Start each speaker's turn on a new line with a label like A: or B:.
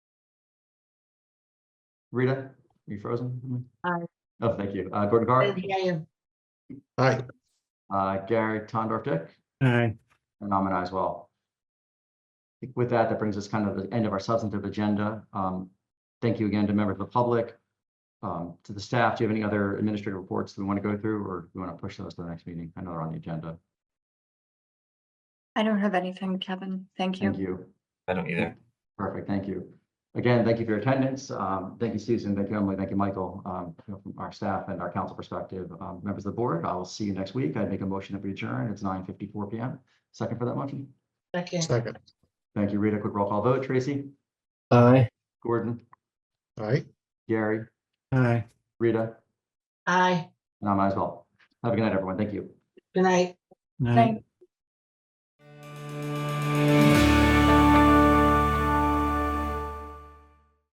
A: Rita, you frozen?
B: Aye.
A: Oh, thank you. Uh, Gordon Carr,
B: I am.
C: Aye.
A: uh, Gary Tondorf Dick,
D: Aye.
A: and I'm an aye as well. I think With that, that brings us kind of the end of our substantive agenda. Um, thank you again to members of the public. Um, to the staff, do you have any other administrative reports that we want to go through or do you want to push those to the next meeting? I know they're on the agenda.
E: I don't have anything, Kevin. Thank you.
A: Thank you.
F: I don't either.
A: Perfect, thank you. Again, thank you for your attendance. Um, thank you, Susan, thank you, Emily, thank you, Michael, um, you know, from our staff and our council perspective, um, members of the board. I will see you next week. I make a motion to adjourn. It's nine fifty-four PM. Second for that motion.
B: Second.
C: Second.
A: Thank you, Rita. Quick roll call vote. Tracy,
D: Aye.
A: Gordon,
C: Aye.
A: Gary,
D: Aye.
A: Rita,
B: Aye.
A: and I might as well. Have a good night, everyone. Thank you.
B: Good night.
D: Aye.
E: Thank-